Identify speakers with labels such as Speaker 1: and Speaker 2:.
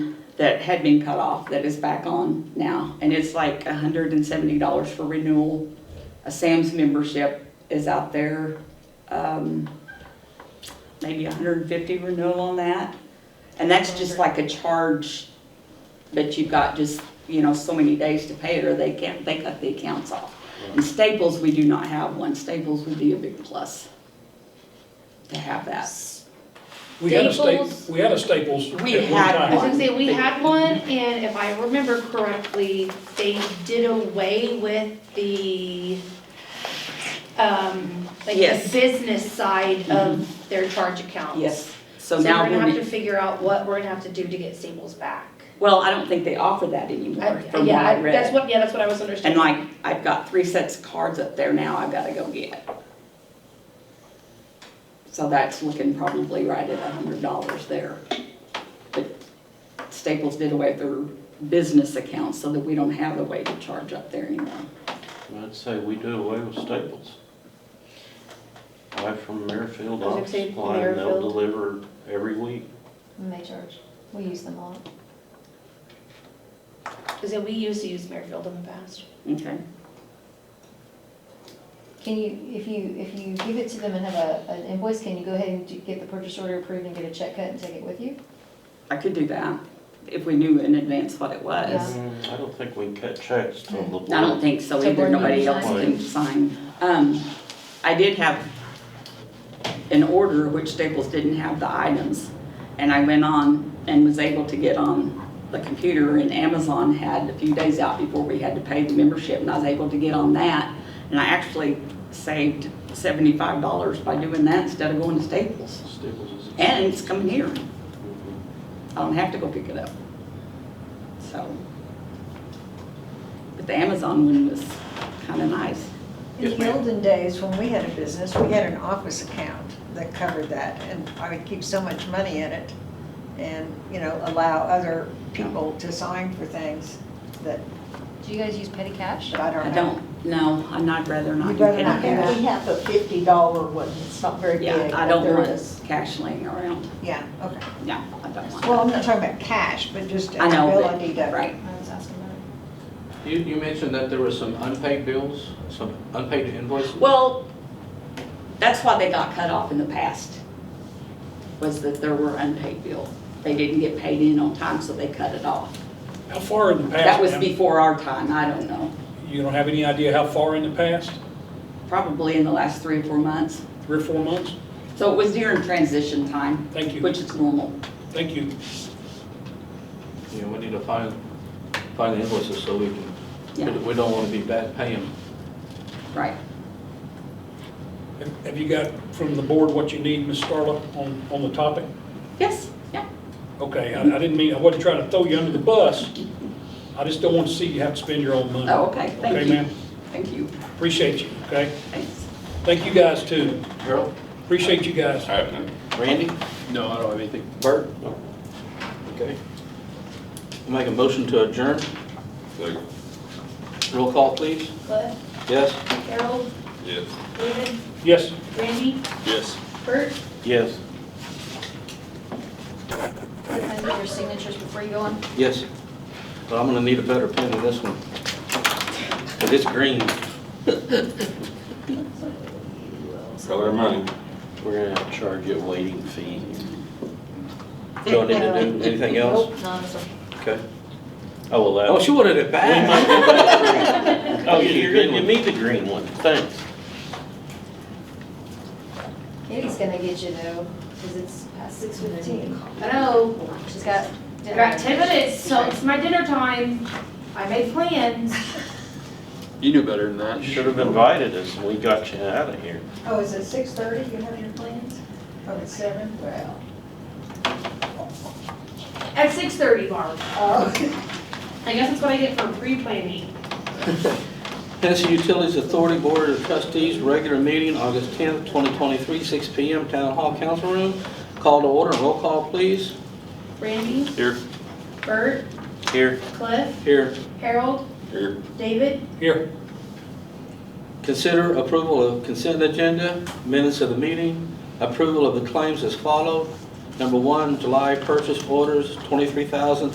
Speaker 1: that had been cut off that is back on now. And it's like hundred and seventy dollars for renewal. A Sam's membership is out there, um, maybe hundred and fifty renewal on that. And that's just like a charge that you've got just, you know, so many days to pay it or they can't, they cut the accounts off. And Staples, we do not have one. Staples would be a big plus to have that.
Speaker 2: We had a
Speaker 3: Staples.
Speaker 2: Staples, we had a Staples at
Speaker 1: We
Speaker 2: one
Speaker 1: had
Speaker 3: I was
Speaker 2: time.
Speaker 3: gonna say, we had one, and if I remember correctly, they did away with the, um, like the
Speaker 1: Yes. Mm-hmm.
Speaker 3: business side of their charge accounts.
Speaker 1: Yes, so
Speaker 3: So we're
Speaker 1: now
Speaker 3: gonna
Speaker 1: we're,
Speaker 3: have to
Speaker 1: be-
Speaker 3: figure out what we're gonna have to do to get Staples back.
Speaker 1: well, I don't think they offer that
Speaker 3: I-
Speaker 1: anymore from what
Speaker 3: Yeah,
Speaker 1: I
Speaker 3: I- that's
Speaker 1: read.
Speaker 3: what, yeah, that's what I was
Speaker 1: And
Speaker 3: understanding.
Speaker 1: like, I've got three sets of cards up there now I've gotta go get. So that's looking probably right at a hundred dollars there. But Staples did away with their business accounts so that we don't have a way to charge up there anymore.
Speaker 4: I'd say we do away with Staples. Buy from Merrifield
Speaker 3: I was gonna
Speaker 4: Office
Speaker 3: say
Speaker 4: Supply, and they'll
Speaker 3: Merrifield.
Speaker 4: deliver every week.
Speaker 5: And they charge, we use them all.
Speaker 3: Cause we used to use Merrifield in the past.
Speaker 1: Okay.
Speaker 5: Can you, if you, if you give it to them and have a, an invoice, can you go ahead and do- get the purchase order approved and get a check cut and take it with you?
Speaker 1: I could do that if we knew in advance what it was.
Speaker 5: Yeah.
Speaker 4: Mm, I don't think we can cut checks till the
Speaker 1: I don't
Speaker 4: board.
Speaker 1: think so
Speaker 5: So
Speaker 1: either,
Speaker 5: Brenda,
Speaker 1: nobody
Speaker 5: you
Speaker 1: else
Speaker 4: sign?
Speaker 1: can sign. Um, I did have an order, which Staples didn't have the items. And I went on and was able to get on the computer and Amazon had a few days out before we had to pay the membership and I was able to get on that. And I actually saved seventy-five dollars by doing that instead of going to Staples.
Speaker 4: Staples is.
Speaker 1: And it's coming here.
Speaker 4: Mhm.
Speaker 1: I don't have to go pick it up. So. But the Amazon one was kind of nice.
Speaker 6: In
Speaker 2: Yes,
Speaker 6: the
Speaker 2: ma'am.
Speaker 6: olden days, when we had a business, we had an office account that covered that, and I would keep so much money in it and, you know, allow other people to sign for things that,
Speaker 5: Do you guys use petty cash?
Speaker 6: that I don't
Speaker 1: I
Speaker 6: know.
Speaker 1: don't, no, I'd not rather not
Speaker 7: You'd
Speaker 1: do
Speaker 7: rather not
Speaker 1: petty
Speaker 7: have,
Speaker 1: cash.
Speaker 7: we have a fifty dollar one, it's not very big,
Speaker 1: Yeah, I
Speaker 7: but
Speaker 1: don't
Speaker 7: there
Speaker 1: want
Speaker 7: is.
Speaker 1: cash laying around.
Speaker 6: Yeah, okay.
Speaker 1: Yeah, I don't want
Speaker 6: Well,
Speaker 1: that.
Speaker 6: I'm not talking about cash, but just an
Speaker 1: I know,
Speaker 6: ability
Speaker 1: but,
Speaker 6: to,
Speaker 1: right.
Speaker 5: I was asking about
Speaker 8: You, you mentioned that there were some unpaid bills, some unpaid invoices.
Speaker 1: Well, that's why they got cut off in the past, was that there were unpaid bills. They didn't get paid in on time, so they cut it off.
Speaker 2: How far in the past,
Speaker 1: That was
Speaker 2: ma'am?
Speaker 1: before our time, I don't know.
Speaker 2: You don't have any idea how far in the past?
Speaker 1: Probably in the last three or four months.
Speaker 2: Three or four months?
Speaker 1: So it was during transition time,
Speaker 2: Thank you,
Speaker 1: which is normal.
Speaker 2: thank you.
Speaker 8: You know, we need to find, find the invoices so we can, we
Speaker 1: Yeah,
Speaker 8: don't- we don't want to be bad paying.
Speaker 1: right.
Speaker 2: Have- Have you got from the board what you need, Ms. Starla, on, on the topic?
Speaker 1: Yes, yeah.
Speaker 2: Okay, I, I didn't mean, I wasn't trying to throw you under the bus. I just don't want to see you have to spend your own money.
Speaker 1: Oh, okay, thank
Speaker 2: Okay,
Speaker 1: you.
Speaker 2: ma'am,
Speaker 1: Thank you,
Speaker 2: appreciate you, okay?
Speaker 1: thanks.
Speaker 2: Thank you guys too,
Speaker 8: Harold?
Speaker 2: appreciate you guys.
Speaker 8: Randy?
Speaker 9: No, I don't have anything.
Speaker 8: Bert? Okay. Make a motion to adjourn.
Speaker 9: Second.
Speaker 8: Roll call, please.
Speaker 3: Cliff,
Speaker 8: Yes?
Speaker 3: Harold,
Speaker 9: Yes.
Speaker 3: David,
Speaker 2: Yes.
Speaker 3: Randy,
Speaker 9: Yes.
Speaker 3: Bert,
Speaker 4: Yes,
Speaker 5: it. Can I get your signatures before you go on?
Speaker 8: Yes. But I'm gonna need a better pen than this one. 'Cause it's green.
Speaker 9: Color money.
Speaker 4: we're gonna have to charge you a waiting fee. Don't need to do anything else?
Speaker 5: Nope, no, I'm sorry.
Speaker 8: Okay.
Speaker 4: Oh, well, that.
Speaker 8: Oh, she wanted it
Speaker 4: We
Speaker 8: back.
Speaker 4: might get that. Oh,
Speaker 8: You
Speaker 4: you,
Speaker 8: need the
Speaker 4: you're,
Speaker 8: green
Speaker 4: gonna- you
Speaker 8: one.
Speaker 4: need the green one, thanks.
Speaker 5: Katie's gonna get you though, because it's past six fifteen. I know, she's got
Speaker 3: I
Speaker 5: dinner.
Speaker 3: got ten minutes, so it's my dinner time, I made plans.
Speaker 9: You knew better than that.
Speaker 4: You should have invited us, and we got you out of here.
Speaker 6: oh, is it six thirty, you have your plans? Oh, it's seven, well.
Speaker 3: At six thirty, Barb.
Speaker 6: Oh.
Speaker 3: I guess that's what I get for pre-planning.
Speaker 8: Tennessee Utilities Authority Board of Trustees, regular meeting, August 10th, 2023, 6 PM, Town Hall Council Room. Call to order, roll call, please.
Speaker 3: Randy,
Speaker 4: Here.
Speaker 3: Bert,
Speaker 4: Here.
Speaker 3: Cliff,
Speaker 8: Here.
Speaker 3: Harold,
Speaker 9: Here.
Speaker 3: David,
Speaker 2: Here.
Speaker 8: Consider approval of consent agenda, minutes of the meeting, approval of the claims as follow. Number one, July purchase orders, 23000